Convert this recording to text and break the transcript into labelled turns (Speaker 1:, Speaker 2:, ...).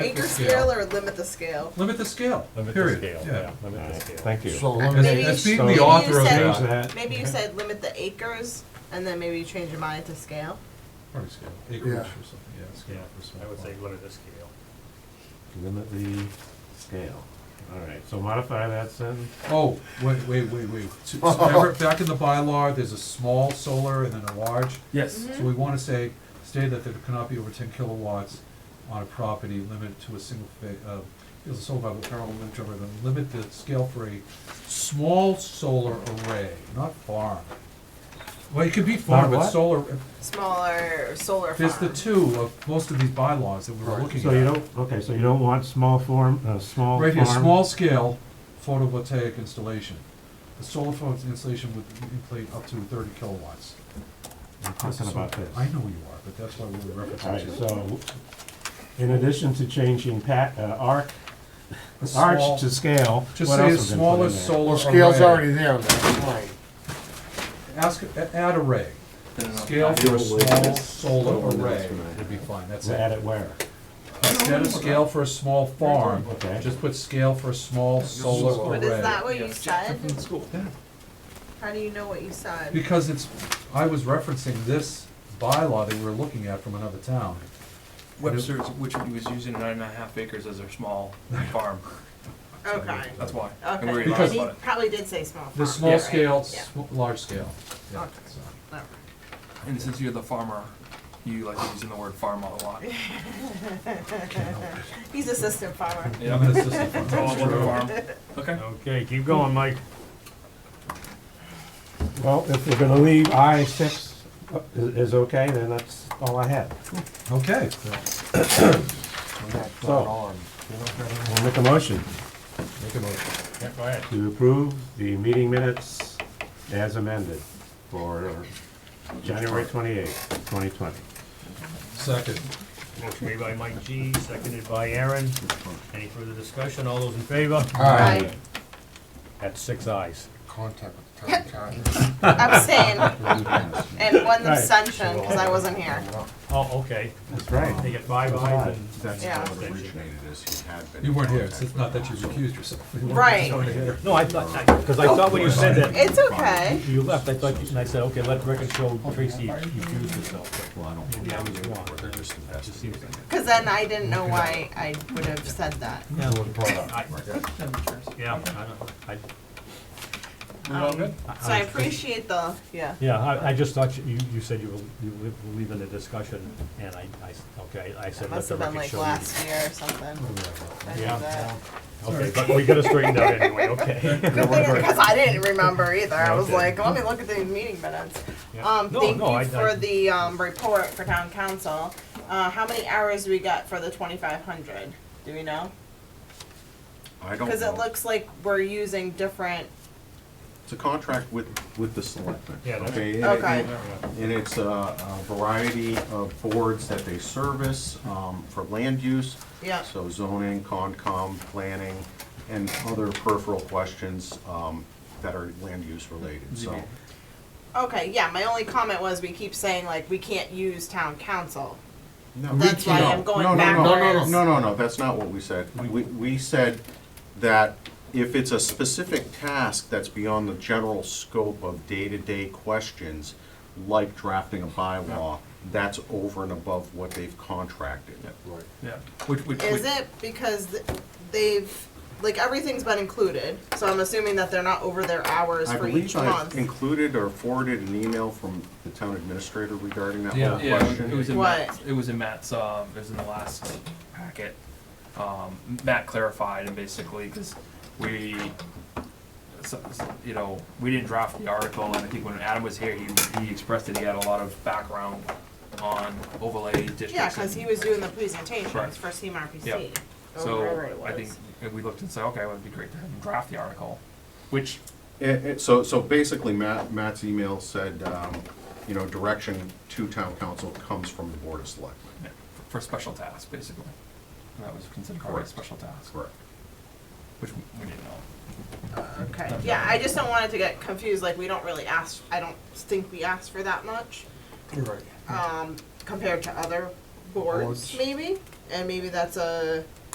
Speaker 1: Anchor scale or limit the scale?
Speaker 2: Limit the scale,
Speaker 3: Limit the
Speaker 2: period.
Speaker 3: scale,
Speaker 2: Yeah.
Speaker 3: yeah, limit the scale.
Speaker 4: Thank you.
Speaker 5: So
Speaker 2: As,
Speaker 5: eliminate,
Speaker 1: Maybe
Speaker 2: as
Speaker 1: you
Speaker 2: being the
Speaker 1: should-
Speaker 2: author
Speaker 1: maybe you
Speaker 2: of that,
Speaker 4: Change
Speaker 1: said-
Speaker 4: that.
Speaker 1: Maybe you said limit the acres, and then maybe you change your mind to scale?
Speaker 2: probably scale, acreage
Speaker 5: Yeah.
Speaker 2: or something, yeah,
Speaker 3: Yeah,
Speaker 2: scale for small.
Speaker 3: I would say
Speaker 2: farm.
Speaker 3: limit the scale.
Speaker 4: Limit the scale. All right, so modify that sentence.
Speaker 2: Oh, wait, wait, wait, wait. So- so remember, back in the bylaw, there's a small solar and then a large.
Speaker 3: Yes.
Speaker 1: Mm-hmm.
Speaker 2: So we wanna say, state that there cannot be over ten kilowatts on a property limited to a single fa- uh, is a solar by parallel limit to, then limit the scale for a small solar array, not farm. Well, it could be farm,
Speaker 4: Not
Speaker 2: but
Speaker 4: what?
Speaker 2: solar,
Speaker 1: Smaller solar farm?
Speaker 2: there's the two of most of these bylaws that we were
Speaker 5: Right.
Speaker 2: looking at.
Speaker 4: So you don't, okay, so you don't want small form, uh, small farm?
Speaker 2: Right here, small scale photovoltaic installation. The solar photovoltaic installation would inflate up to thirty kilowatts.
Speaker 4: I'm talking
Speaker 2: So-
Speaker 4: about this.
Speaker 2: I know you are, but that's why we're
Speaker 4: All right,
Speaker 2: referencing. it.
Speaker 4: so in addition to changing pat, uh, arc,
Speaker 2: A small-
Speaker 4: arch to scale,
Speaker 2: Just
Speaker 4: what
Speaker 2: say a
Speaker 4: else have been put
Speaker 2: smaller
Speaker 4: in there?
Speaker 2: solar
Speaker 5: well, scale's
Speaker 2: array.
Speaker 5: already there, that's fine.
Speaker 2: Ask, a- add array. Scale for a small solar array would be fine, that's
Speaker 4: So Add
Speaker 2: it.
Speaker 4: it where?
Speaker 2: Instead of scale for a small farm,
Speaker 4: Okay.
Speaker 2: just put scale for a small solar
Speaker 1: But is that
Speaker 2: array.
Speaker 1: what you said?
Speaker 2: Yeah,
Speaker 1: How do you know what you said?
Speaker 2: Because it's, I was referencing this bylaw that we were looking at from another town.
Speaker 6: Webster's, which was using nine and a half acres as their small farm.
Speaker 1: Okay,
Speaker 6: That's why. And we were
Speaker 1: okay.
Speaker 6: advised
Speaker 2: Because-
Speaker 1: He
Speaker 6: about it.
Speaker 1: probably did say small farm.
Speaker 2: The small
Speaker 1: right?
Speaker 2: scale,
Speaker 1: Yeah.
Speaker 2: sm- large scale. Yeah,
Speaker 1: Okay.
Speaker 2: so.
Speaker 1: Alright.
Speaker 6: And since you're the farmer, you like using the word farm a lot.
Speaker 1: He's assistant farmer.
Speaker 6: Yeah.
Speaker 2: I'm an assistant farmer.
Speaker 6: It's all about the farm. Okay.
Speaker 4: Okay, keep going, Mike. Well, if we're gonna leave I six uh, is, is okay, then that's all I have.
Speaker 2: Okay,
Speaker 5: That's
Speaker 4: So-
Speaker 5: not on.
Speaker 4: We'll make a motion
Speaker 2: make a motion.
Speaker 3: Yeah, go ahead.
Speaker 4: to approve the meeting minutes as amended for January twenty-eighth, twenty twenty.
Speaker 2: Second.
Speaker 3: Motion made by Mike G, seconded by Aaron. Any further discussion? All those in favor?
Speaker 5: Alright,
Speaker 3: That's six eyes.
Speaker 5: contact with the town
Speaker 1: Abstain,
Speaker 5: council.
Speaker 1: and one
Speaker 4: Right.
Speaker 1: abstention, because I wasn't here.
Speaker 3: Oh, okay.
Speaker 4: That's
Speaker 3: They
Speaker 4: right.
Speaker 3: get five
Speaker 4: That's
Speaker 3: eyes
Speaker 4: right.
Speaker 3: and
Speaker 7: That's
Speaker 1: Yeah.
Speaker 7: how it originated, is he had been.
Speaker 2: You
Speaker 7: in
Speaker 2: weren't here,
Speaker 7: contact
Speaker 2: so it's
Speaker 7: with
Speaker 2: not that
Speaker 7: the
Speaker 2: you
Speaker 7: council.
Speaker 2: recused yourself. You weren't
Speaker 1: Right.
Speaker 2: here.
Speaker 3: No, I thought, because I thought when you said that,
Speaker 1: It's okay.
Speaker 3: you left, I thought, and I said, okay, let record show Tracy refused herself.
Speaker 7: Well, I don't think
Speaker 3: Maybe I was wrong.
Speaker 7: they were just
Speaker 3: Just
Speaker 7: invested.
Speaker 3: seems like-
Speaker 1: Because then I didn't know why I would have said that.
Speaker 3: I- Yeah, I don't- I,
Speaker 1: Um, So I appreciate the, yeah.
Speaker 3: yeah, I, I just thought you- you, you said you were, you were leaving the discussion, and I, I, s- okay, I
Speaker 1: It
Speaker 3: said let
Speaker 1: must
Speaker 3: the
Speaker 1: have been
Speaker 3: record
Speaker 1: like
Speaker 3: show.
Speaker 1: last year or something. I did
Speaker 3: Yeah.
Speaker 1: that.
Speaker 3: Okay, but we got it straightened out anyway, okay.
Speaker 1: Good thing, because I didn't remember either. I was
Speaker 3: Okay.
Speaker 1: like, let me look at the meeting minutes.
Speaker 3: Yeah.
Speaker 1: Um,
Speaker 3: No,
Speaker 1: thank
Speaker 3: no, I-
Speaker 1: you
Speaker 3: I-
Speaker 1: for the, um, report for town council. Uh, how many hours we got for the twenty-five hundred? Do we know?
Speaker 7: I don't
Speaker 1: Cause it
Speaker 7: know.
Speaker 1: looks like we're using different,
Speaker 7: It's a contract with, with the selectmen.
Speaker 3: Yeah, that's-
Speaker 7: Okay, and it-
Speaker 1: okay,
Speaker 7: And it's a a variety of boards that they service um, for land use.
Speaker 1: yeah.
Speaker 7: So zoning, concom, planning, and other peripheral questions um, that are land use related, so.
Speaker 1: Okay, yeah, my only comment was we keep saying like, we can't use town council.
Speaker 7: No,
Speaker 1: That's
Speaker 7: we
Speaker 1: why
Speaker 7: can't.
Speaker 1: I'm going
Speaker 7: No, no, no.
Speaker 1: backwards.
Speaker 7: No, no, no, that's not what we said. We, we said that if it's a specific task that's beyond the general scope of day-to-day questions, like drafting a bylaw, that's over and above what they've contracted.
Speaker 6: Yeah. Which, which.
Speaker 1: Is
Speaker 6: which-
Speaker 1: it because th- they've, like, everything's been included, so I'm assuming that they're not over their hours
Speaker 7: I
Speaker 1: for each
Speaker 7: believe I
Speaker 1: month?
Speaker 7: included or forwarded an email from the town administrator regarding that
Speaker 2: Yeah.
Speaker 7: whole
Speaker 6: Yeah, it
Speaker 7: question.
Speaker 6: was in
Speaker 1: What?
Speaker 6: Matt's, it was in Matt's, um, it was in the last packet. Um, Matt clarified and basically, cause we, so- so, you know, we didn't draft the article and I think when Adam was here, he, he expressed that he had a lot of background on overlay districts.
Speaker 1: Yeah, cause he
Speaker 6: and-
Speaker 1: was doing the presentations
Speaker 6: Right.
Speaker 1: for
Speaker 6: Yeah.
Speaker 1: CMRPC. or wherever
Speaker 6: So
Speaker 1: it was.
Speaker 6: I think if we looked and said, okay, well, it'd be great to have him draft the article, which
Speaker 7: It- it- so, so basically Matt, Matt's email said, um, you know, direction to town council comes from the board of selectmen.
Speaker 6: yeah, for- for special tasks, basically. And that was considered already a
Speaker 7: Correct.
Speaker 6: special task,
Speaker 7: Correct.
Speaker 6: which we we didn't know.
Speaker 1: Okay, yeah, I just don't want it to get confused, like, we don't really ask, I don't think we ask for that much,
Speaker 5: Right.
Speaker 7: Mm.
Speaker 1: um, compared to other boards,
Speaker 5: Boards.
Speaker 1: maybe? and maybe that's a